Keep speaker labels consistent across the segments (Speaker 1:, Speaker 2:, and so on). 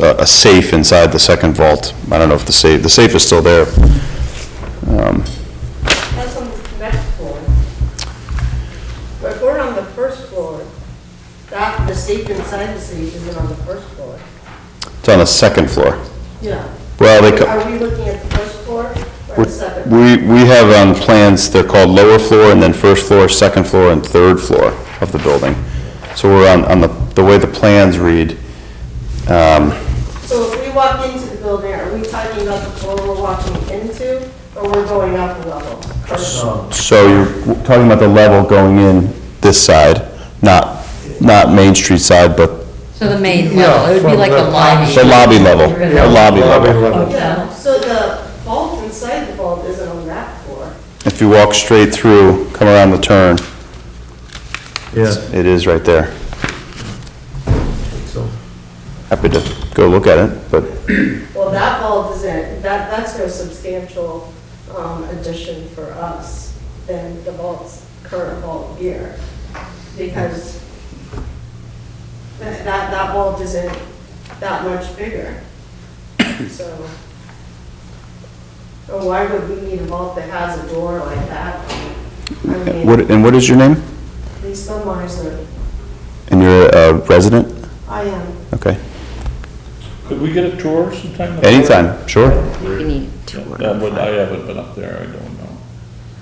Speaker 1: a a safe inside the second vault. I don't know if the safe, the safe is still there. Um,
Speaker 2: That's on the next floor. But if we're on the first floor, that, the safe inside the safe isn't on the first floor.
Speaker 1: It's on the second floor.
Speaker 2: Yeah.
Speaker 1: Well, they, co-
Speaker 2: Are we looking at the first floor or the second?
Speaker 1: we, we have on plans, they're called lower floor and then first floor, second floor, and third floor of the building. So we're on, on the, the way the plans read, um,
Speaker 2: So if we walk into the building, are we talking about the floor we're walking into or we're going up a level? First floor.
Speaker 1: so you're talking about the level going in this side, not, not Main Street side, but
Speaker 3: So the main
Speaker 4: Yeah,
Speaker 3: level, it'd be
Speaker 4: from
Speaker 3: like the
Speaker 4: the
Speaker 3: lobby.
Speaker 1: the lobby level, the lobby level.
Speaker 2: Yeah, so the vault inside the vault isn't on that floor.
Speaker 1: If you walk straight through, come around the turn,
Speaker 4: Yeah,
Speaker 1: it is right there.
Speaker 4: so,
Speaker 1: Happy to go look at it, but uh,
Speaker 2: Well, that vault isn't, that, that's no substantial um, addition for us than the vault's current vault here. Because that, that that vault isn't that much bigger. So, so why would we need a vault that has a door like that? I mean,
Speaker 1: what, and what is your name?
Speaker 2: Lisa Meisner,
Speaker 1: And you're a uh, resident?
Speaker 2: I am.
Speaker 1: Okay.
Speaker 5: Could we get a tour sometime?
Speaker 1: Anytime, sure.
Speaker 3: You need to work.
Speaker 5: That would, I haven't been up there, I don't know.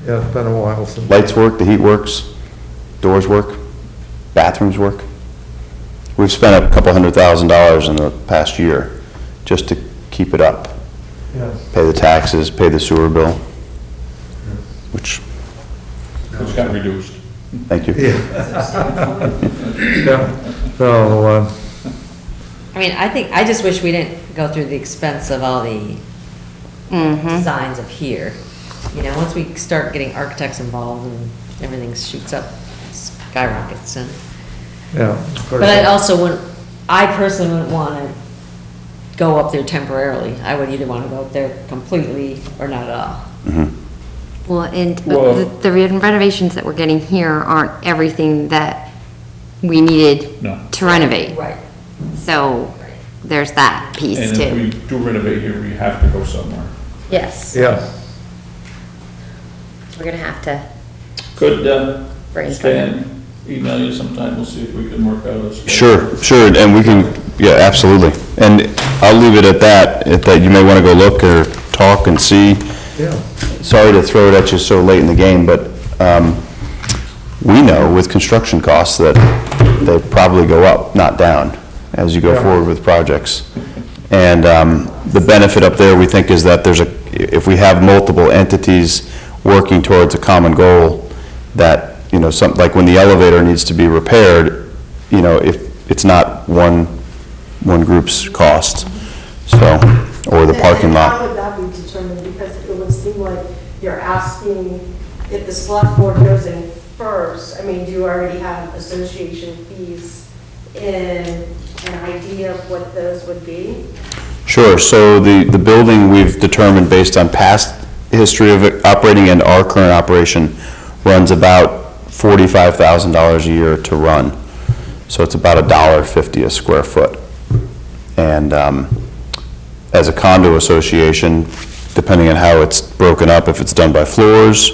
Speaker 4: yeah, it's been a while since.
Speaker 1: Lights work, the heat works, doors work, bathrooms work. We've spent a couple hundred thousand dollars in the past year just to keep it up.
Speaker 4: Yes.
Speaker 1: Pay the taxes, pay the sewer bill, which,
Speaker 5: It's got reduced.
Speaker 1: thank you.
Speaker 4: Yeah, yeah, so, uh,
Speaker 3: I mean, I think, I just wish we didn't go through the expense of all the designs of here. You know, once we start getting architects involved and everything shoots up, skyrockets and.
Speaker 4: yeah. of course.
Speaker 3: But I also wouldn't, I personally wouldn't want to go up there temporarily. I would either want to go up there completely or not at all.
Speaker 1: Mm-hmm.
Speaker 6: Well, and
Speaker 5: Well-
Speaker 6: the the renovations that we're getting here aren't everything that we needed
Speaker 5: No.
Speaker 6: to renovate.
Speaker 3: Right.
Speaker 6: So there's that piece
Speaker 5: And if we
Speaker 6: too.
Speaker 5: do renovate here, we have to go somewhere.
Speaker 6: Yes,
Speaker 4: Yeah,
Speaker 6: we're gonna have to,
Speaker 5: Could, uh,
Speaker 6: Brainstorm.
Speaker 5: Stan email you sometime, we'll see if we can work out a. schedule.
Speaker 1: Sure, sure, and we can, yeah, absolutely. And I'll leave it at that, at that you may want to go look or talk and see.
Speaker 4: yeah,
Speaker 1: Sorry to throw it at you so late in the game, but um, we know with construction costs that they probably go up, not down, as you go
Speaker 4: Yeah.
Speaker 1: forward with projects. And um, the benefit up there, we think, is that there's a, if we have multiple entities working towards a common goal, that, you know, some, like when the elevator needs to be repaired, you know, if, it's not one, one group's cost, so, or the parking
Speaker 2: And
Speaker 1: lot.
Speaker 2: How would that be determined? Because it would seem like you're asking if the select board goes in first. I mean, do you already have association fees and an idea of what those would be?
Speaker 1: Sure, so the, the building we've determined based on past history of it operating and our current operation runs about forty-five thousand dollars a year to run. So it's about a dollar fifty a square foot. And, um, as a condo association, depending on how it's broken up, if it's done by floors,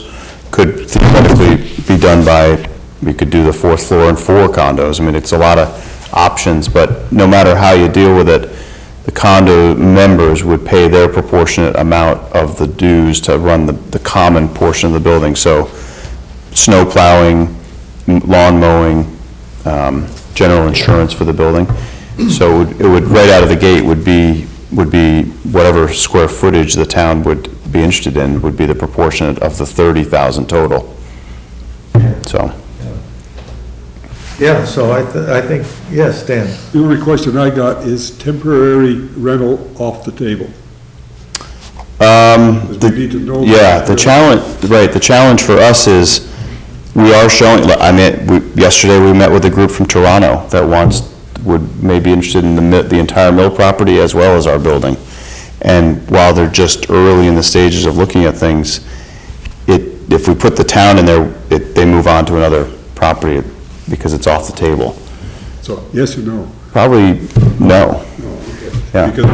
Speaker 1: could theoretically be done by, we could do the fourth floor and four condos. I mean, it's a lot of options, but no matter how you deal with it, the condo members would pay their proportionate amount of the dues to run the, the common portion of the building. So snow plowing, m- lawn mowing, um, general insurance for the building. So it would- it would, right out of the gate would be, would be whatever square footage the town would be interested in, would be the proportionate of the 30,000 total. So,
Speaker 4: yeah, so I, th- I think, yes, Dan,
Speaker 7: The only question I got is temporary rental off the table.
Speaker 1: um,
Speaker 7: Because
Speaker 1: the-
Speaker 7: we need to know.
Speaker 1: Yeah, the challenge, right, the challenge for us is, we are showing, I mean, we- yesterday we met with a group from Toronto that wants, would may be interested in the, mi- the entire mill property as well as our building. And while they're just early in the stages of looking at things, it, if we put the town in there, it, they move on to another property because it's off the table.
Speaker 7: So, yes or no?
Speaker 1: Probably no.
Speaker 7: No, okay.
Speaker 1: Yeah.
Speaker 7: Because